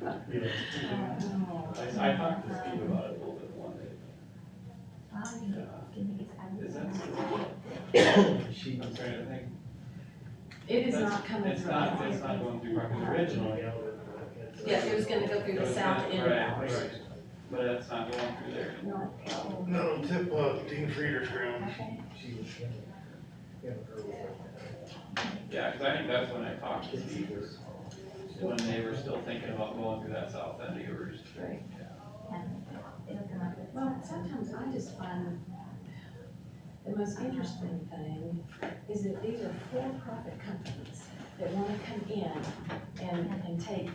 Yeah. I, I talked to Steve about it a little bit one day. Is that? She, I'm trying to think. It is That's- not coming It's through. not, it's not going through property originally. Yeah, it was gonna go through the south end. Right, right. But it's not going through there. No. No, tip off Dean Frieder's ground. she was. Yeah, her was- Yeah, cause I think that's when I talked to Steve, was when they were still thinking about going through that south end of yours. Right. Well, sometimes I just find the most interesting thing is that these are for-profit companies that wanna come in and, and take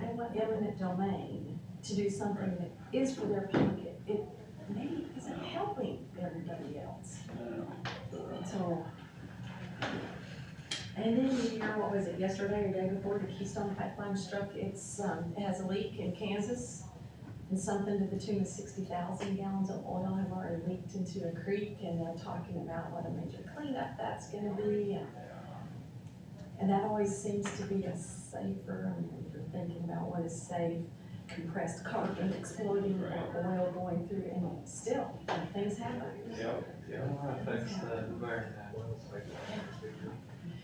Iowa eminent domain to do something that is for their pocket. It maybe isn't helping everybody else. I don't know. So. And then, you know, what was it, yesterday or day before, the Keystone Pipeline struck, it's, um, it has a leak in Kansas. And something to the tune of sixty thousand gallons of oil have already leaked into a creek, and they're talking about what a major cleanup that's gonna be. and- And that always seems to be a safer, I mean, if you're thinking about what is safe, compressed carbon exploding, or oil going through, and still, things happen. Yep, yep. affects the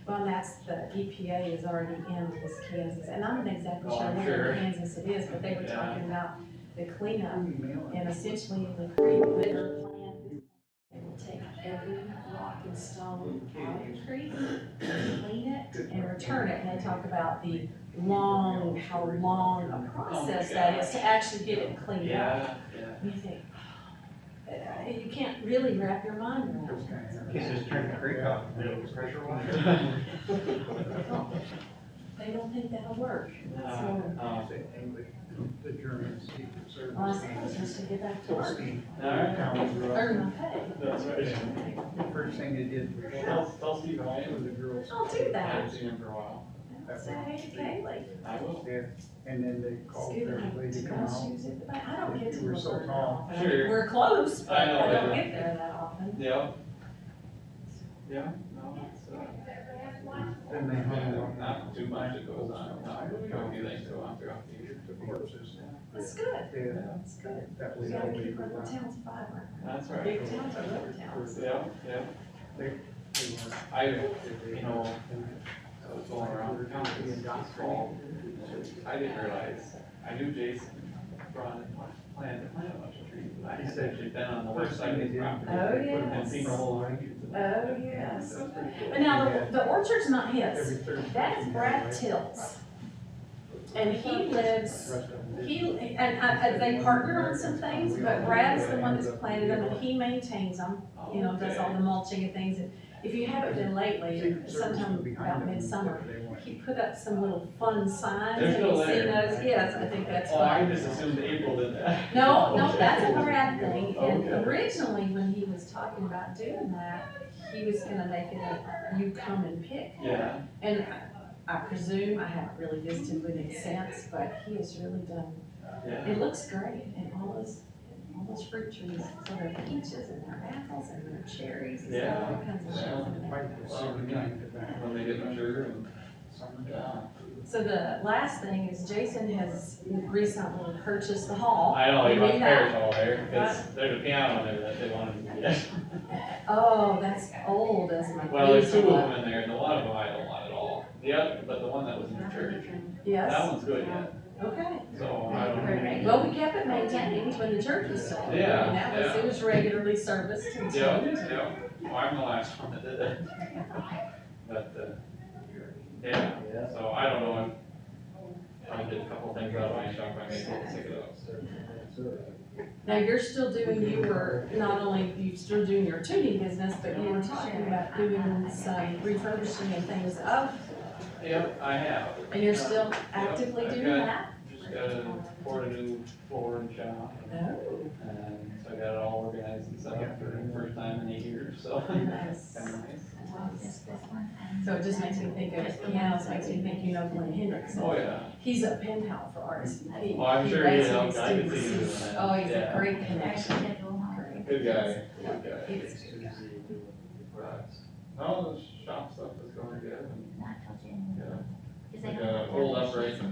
Well, and that's, the EPA is already in this Kansas, and I'm not exactly Oh, sure I'm where sure. in Kansas it is, but they were Yeah. talking about the cleanup, and essentially in the creek litter plant, they will take every rock and stone out of the creek, clean it, and return it, and they talk about the long, how long a process that is to actually get it cleaned up. Yeah, Oh yeah. You think, uh, you can't really wrap your mind around it. He's just turning the creek off, pressure Um, wise. They don't think that'll work, so. Uh, um, The German Secret Service. Well, I suppose I should get back to work, earn Alright. my pay. That's right. First thing they did was Well, tell, tell Steve I am with the girls. I'll do I that. haven't seen him for a while. Say hey to Kaylee. I will. there, and then they called Scoot out everybody to to come my out. shoes at the back. I don't get to You were so work that tall. often. I mean, Sure. We're close, but I know, I I don't know. get there that often. Yeah. Yeah, no, it's, uh, Then they hung yeah, them. not too much that goes on, not a few things go on throughout the year. The corpses. That's good, Yeah, that's good. that We was gotta all we keep our little were. towns vibrant. That's right. Big towns are little towns. Yeah, yeah. I, you know, I was going around the county and got called. I didn't realize, I knew Jason Braun had planned to plant a bunch of trees, but I had actually been on the west side of his property. Oh, And seen the yes. whole line. Oh, yes. That's pretty cool. But now, the- the orchard's not his, Every Thursday. that is Brad Till's. And he lives, he, and I, I- they partner on some things, but Brad is the one that's planted them, and he maintains them. Oh, you know, does all the mulching and things, and if you haven't been lately, Secret Service was sometime behind about them. midsummer, They wanted- he put up some little fun signs, They're have you still seen there. those? Yes, I think that's Oh, I fun. just assumed April did that. No, no, that's a Brad thing, and Oh, Okay. originally, when he was talking about doing that, he was gonna make it a, you come and pick. Yeah, And I- I presume, I haven't really visited with him since, but he has really done, yeah. it looks great, and all those, all those fruit trees, so their peaches and their apples and their cherries, and Yeah. all kinds of stuff in there. Mike was sitting behind the back. When they get mature and, yeah. So the last thing is Jason has recently purchased the hall. I know, they You bought need pears all there, cause there's a piano there that they wanted to get. Oh, that's old as my. Well, there's two pizza. of them in there, and the one of them I don't want at all. The other, but the one that was in the church, that Yes, one's good yet, okay. so I don't. Right. Well, we kept it maintained when the church was sold. Yeah, And that was, yeah. it was regularly serviced and Yeah, so. yeah, Well, I'm the last one that did it. But, uh, yeah, so I don't know, I'm, I did a couple things out of my shop, I may go pick it up. Now, you're still doing, you were, not only you're still doing your tuning business, but you were talking about doing some refurbishing and things up. Yep, I have, And you're still actively I've doing got- that? just gotta pour a new floor and shop, Oh, and Um, so I got it all organized and set up for the first time in eight years, so. nice. Kinda Oh, nice. So it just makes me think of pianos, makes me think, you know, Glenn Oh, Hendrickson. yeah, He's a pen pal for artists. He- well, I'm he sure, you writes know, with I could see students. you doing that. Oh, he's a Yeah. great connection. Good guy, good guy. He's- Right. No, the shop stuff is going good and, yeah, like, uh, old uprights and